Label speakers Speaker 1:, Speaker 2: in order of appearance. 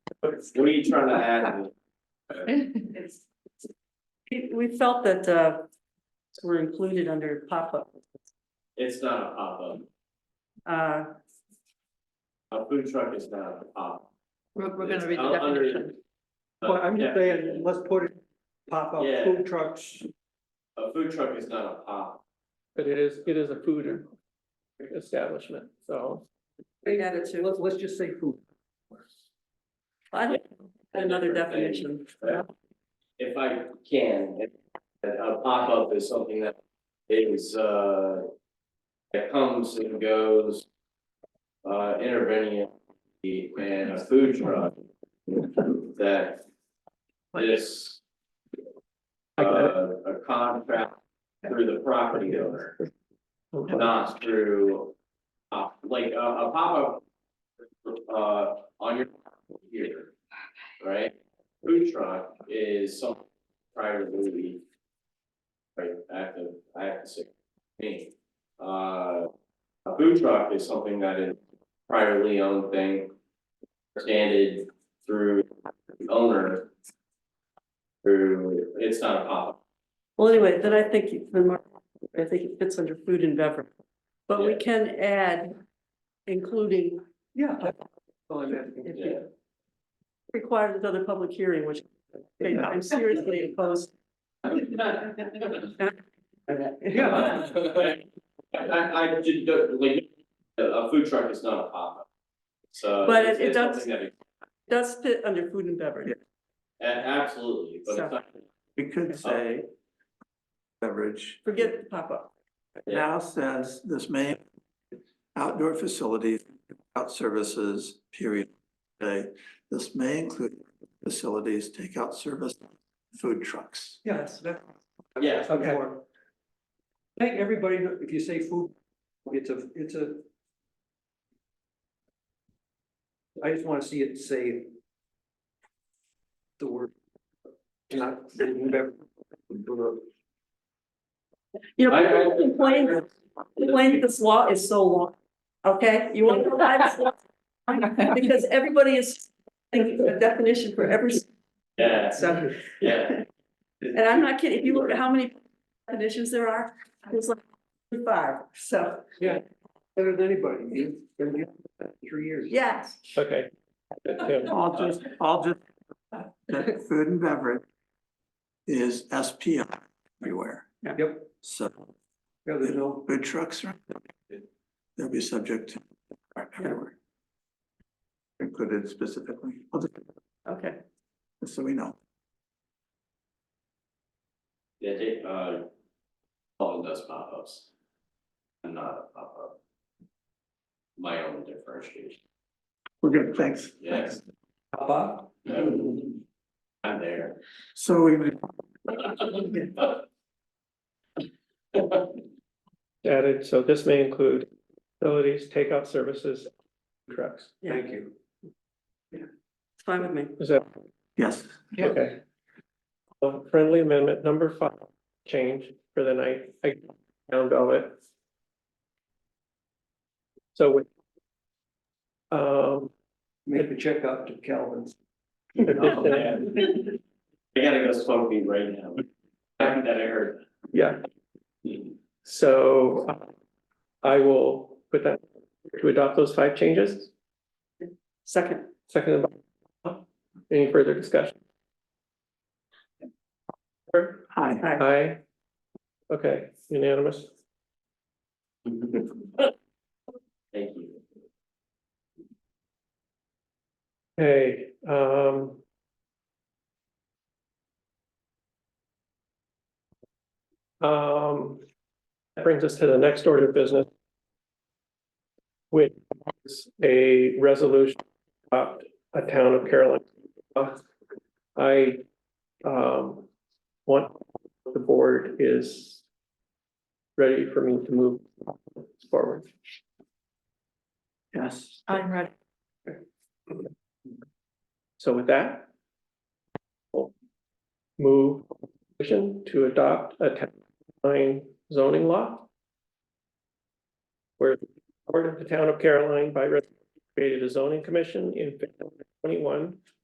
Speaker 1: What are you trying to add?
Speaker 2: It's- it- We felt that uh, were included under pop-up.
Speaker 1: It's not a pop-up.
Speaker 2: Uh,
Speaker 1: A food truck is not a pop.
Speaker 3: We're, we're
Speaker 1: It's
Speaker 3: gonna read the
Speaker 1: out Oh, under-
Speaker 3: definition.
Speaker 4: Well, I'm just
Speaker 1: Uh,
Speaker 4: saying, let's put it, pop up
Speaker 1: Yeah.
Speaker 4: food trucks,
Speaker 1: A food truck is not a pop.
Speaker 5: But it is, it is a food establishment, so.
Speaker 2: we added to,
Speaker 4: let's, let's just say food.
Speaker 2: I don't- another definition.
Speaker 1: If I can, if- that a pop-up is something that is, uh, that comes and goes, uh, intervening and a food truck that is
Speaker 5: I got it.
Speaker 1: uh, a contract through the property owner,
Speaker 5: Okay.
Speaker 1: not through, uh, like, a, a pop-up uh, on your here, right? Food truck is some prior to movie. Right, I have to, I have to say, me, uh, a food truck is something that is priorly owned thing, standard through the owner. Through, it's not a pop-up.
Speaker 2: Well, anyway, then I think, you- then Mark- I think it fits under food and beverage. But we
Speaker 1: Yeah.
Speaker 2: can add including
Speaker 4: Yeah. that's all I'm asking.
Speaker 2: if
Speaker 1: Yeah.
Speaker 2: it requires another public hearing, which okay, I'm seriously opposed.
Speaker 4: Yeah,
Speaker 1: I, I, I did, the- like, a, a food truck is not a pop-up. So.
Speaker 2: But
Speaker 1: it's-
Speaker 2: it- it
Speaker 1: it's
Speaker 2: does-
Speaker 1: something that it-
Speaker 2: Does fit under food and beverage.
Speaker 1: a- Absolutely, but it's not,
Speaker 6: We could say beverage.
Speaker 2: Forget the pop-up.
Speaker 6: It Now says this may outdoor facilities, out services, period. Okay, this may include facilities, takeout service, food trucks.
Speaker 4: yes, that,
Speaker 1: yeah,
Speaker 4: okay. Thank everybody, if you say food, it's a, it's a. I just wanna see it say. The word. Not.
Speaker 2: You know,
Speaker 1: I- I-
Speaker 2: people complain, complain that this law is so long. Okay, you want to know why this law? Because everybody is thinking of a definition for every
Speaker 1: yeah,
Speaker 2: sentence.
Speaker 1: yeah.
Speaker 2: And I'm not kidding, if you look at how many definitions there are, it's like five, so,
Speaker 4: Better than anybody, you, three years.
Speaker 2: yes.
Speaker 5: Okay. Good, good.
Speaker 6: I'll just, I'll just, that food and beverage is SPI everywhere.
Speaker 4: Yep, yeah,
Speaker 6: So
Speaker 4: there's no,
Speaker 6: food trucks are, they'll be subject to everywhere. Included specifically, I'll just-
Speaker 2: Okay,
Speaker 6: just so we know.
Speaker 1: Yeah, they, uh, Paul does pop-ups. I'm not a pop-up. My own differentiation,
Speaker 6: We're good, thanks.
Speaker 1: yes,
Speaker 4: Papa,
Speaker 2: Mm-hmm.
Speaker 1: I'm there.
Speaker 6: So we,
Speaker 5: Added, so this may include facilities, takeout services, trucks.
Speaker 2: yeah,
Speaker 4: thank you.
Speaker 2: it's fine with me.
Speaker 5: Is that
Speaker 6: yes,
Speaker 4: Yeah.
Speaker 5: okay? So Friendly amendment number five, change for the night, I found all it. So with. Um.
Speaker 4: Make the check up to Calvin's.
Speaker 1: I gotta go smoke weed right now. Happy that I heard.
Speaker 5: Yeah, so uh, I will put that, to adopt those five changes,
Speaker 2: Second,
Speaker 5: second. Any further discussion? Sure.
Speaker 6: hi.
Speaker 5: Aye. Okay, unanimous.
Speaker 1: Thank you.
Speaker 5: Okay. um. Um, that brings us to the next order of business. Which is a resolution about a town of Carolyn. I, um, want, the board is ready for me to move forward.
Speaker 6: Yes,
Speaker 3: I'm ready.
Speaker 5: So with that. we'll Move motion to adopt a town line zoning law. Where the board of the town of Caroline by resolution created a zoning commission in twenty-one